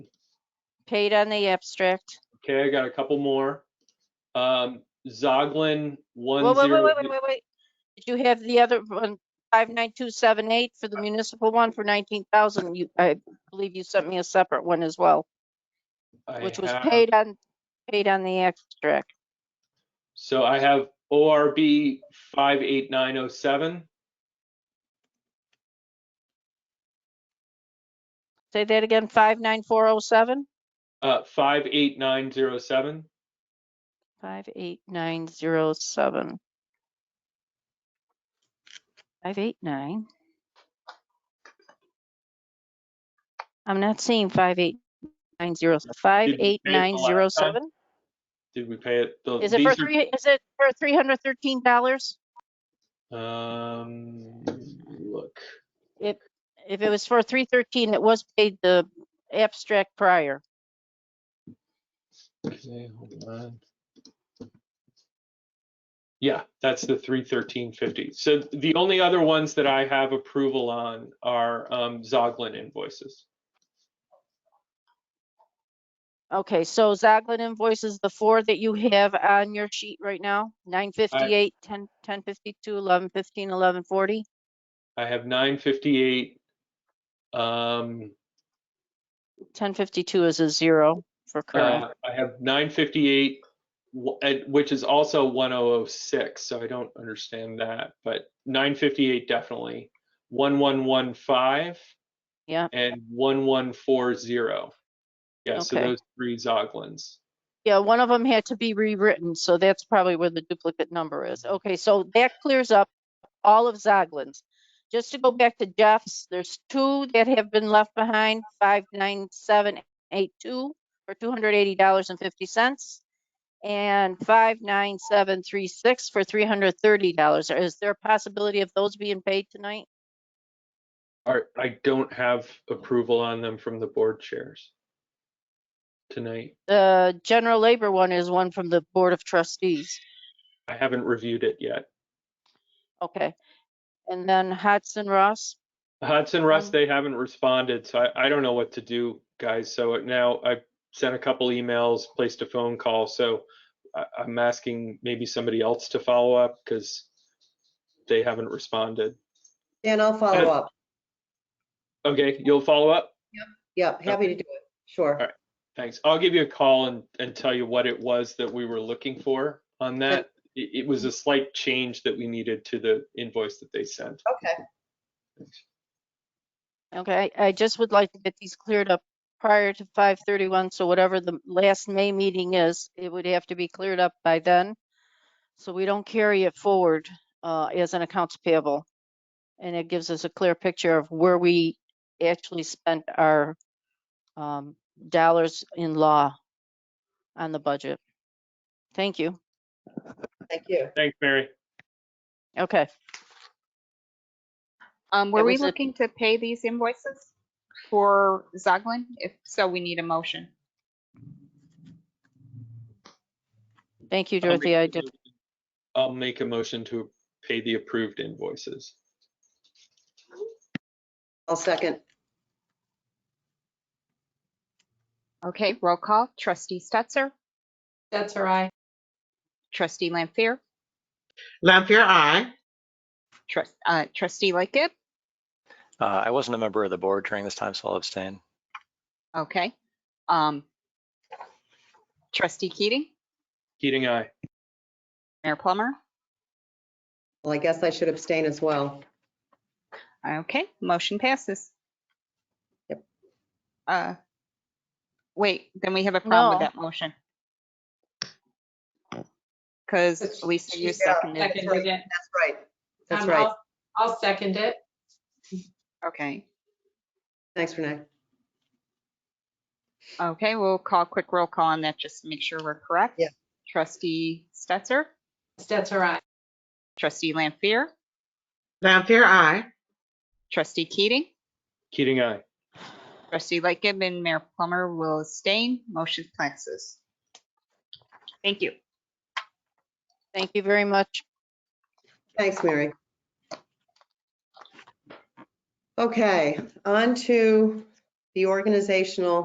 Kate on the abstract. Okay, I got a couple more. Um, Zoglin one Wait, wait, wait, zero. wait, wait, wait, wait. Did you have the other one, five nine two seven eight for the municipal one for nineteen thousand? You, I believe you sent me a separate one as well, I which was have- paid on, paid on the abstract. So I have ORB five eight nine oh seven. Say that again, five nine four oh seven? Uh, five eight nine zero seven. Five eight nine zero seven. Five eight nine. I'm not seeing five eight nine zero, five Did we pay eight it the nine zero last time? seven. Did we pay it? The- Is it for these are- three, is it for three hundred thirteen dollars? Um, look, If it was for three thirteen, it was paid the abstract prior. okay, hold on. Yeah, that's the three thirteen fifty. So the only other ones that I have approval on are, um, Zoglin invoices. Okay, so Zoglin invoices, the four that you have on your sheet right now, nine fifty-eight, ten, ten fifty-two, eleven fifteen, eleven forty. I have nine fifty-eight. Um, Ten fifty-two is a zero for current. uh, I have nine fifty-eight, which is also one oh oh six, so I don't understand that, but nine fifty-eight definitely. One one one five. Yeah. And one one four zero. Yeah, so Okay. those three Zoglins. Yeah, one of them had to be rewritten, so that's probably where the duplicate number is. Okay, so that clears up all of Zoglin's. Just to go back to Jeff's, there's two that have been left behind, five nine seven eight two for two hundred eighty dollars and fifty cents. And five nine seven three six for three hundred thirty dollars. Is there a possibility of those being paid tonight? Are, I don't have approval on them from the board chairs tonight. The general labor one is one from the Board of Trustees. I haven't reviewed it yet. Okay. And then Hudson Ross? Hudson Russ, Um, they haven't responded, so I, I don't know what to do, guys. So now I sent a couple emails, placed a phone call, so I, I'm asking maybe somebody else to follow up because they haven't responded. And I'll follow up. Okay, you'll follow up? Yep, happy to do it. Sure. right. Thanks. I'll give you a call and, and tell you what it was that we were looking for on that. It, it was a slight change that we needed to the invoice that they sent. Okay. Okay, I just would like to get these cleared up prior to five thirty-one, so whatever the last May meeting is, it would have to be cleared up by then. So we don't carry it forward uh, as an accounts payable. And it gives us a clear picture of where we actually spent our um, dollars in law on the budget. Thank you. Thank you. Thanks, Mary. Okay, Um, That were we was a- looking to pay these invoices for Zoglin? If so, we need a motion. thank you, I'll make Dorothy. I a did, motion- I'll make a motion to pay the approved invoices. I'll second. Okay, roll call. Trustee Stetser, That's all right. trustee Lampier, Lampier, aye. trust, uh, trustee Lightgib. Uh, I wasn't a member of the board during this time, so I'll abstain. Okay. Um, trustee Keating, Keating, aye. Mayor Plummer. Well, I guess I should abstain as well. Okay, motion passes. Yep. Uh, wait, then we have a No. problem with that motion. Because Lisa, you seconded. it. right. Seconded it. That's right. That's Um, right. I'll- I'll second it. Okay, Thanks, Renee. okay, we'll call quick roll call on that, just to make sure we're correct. Yeah. Trustee Stetser, That's all right. trustee Lampier, Lampier, aye. trustee Keating, Keating, aye. trustee Lightgib, and Mayor Plummer will abstain. Motion passes. Thank you. thank you very much. Thanks, Mary. Okay, on to the organizational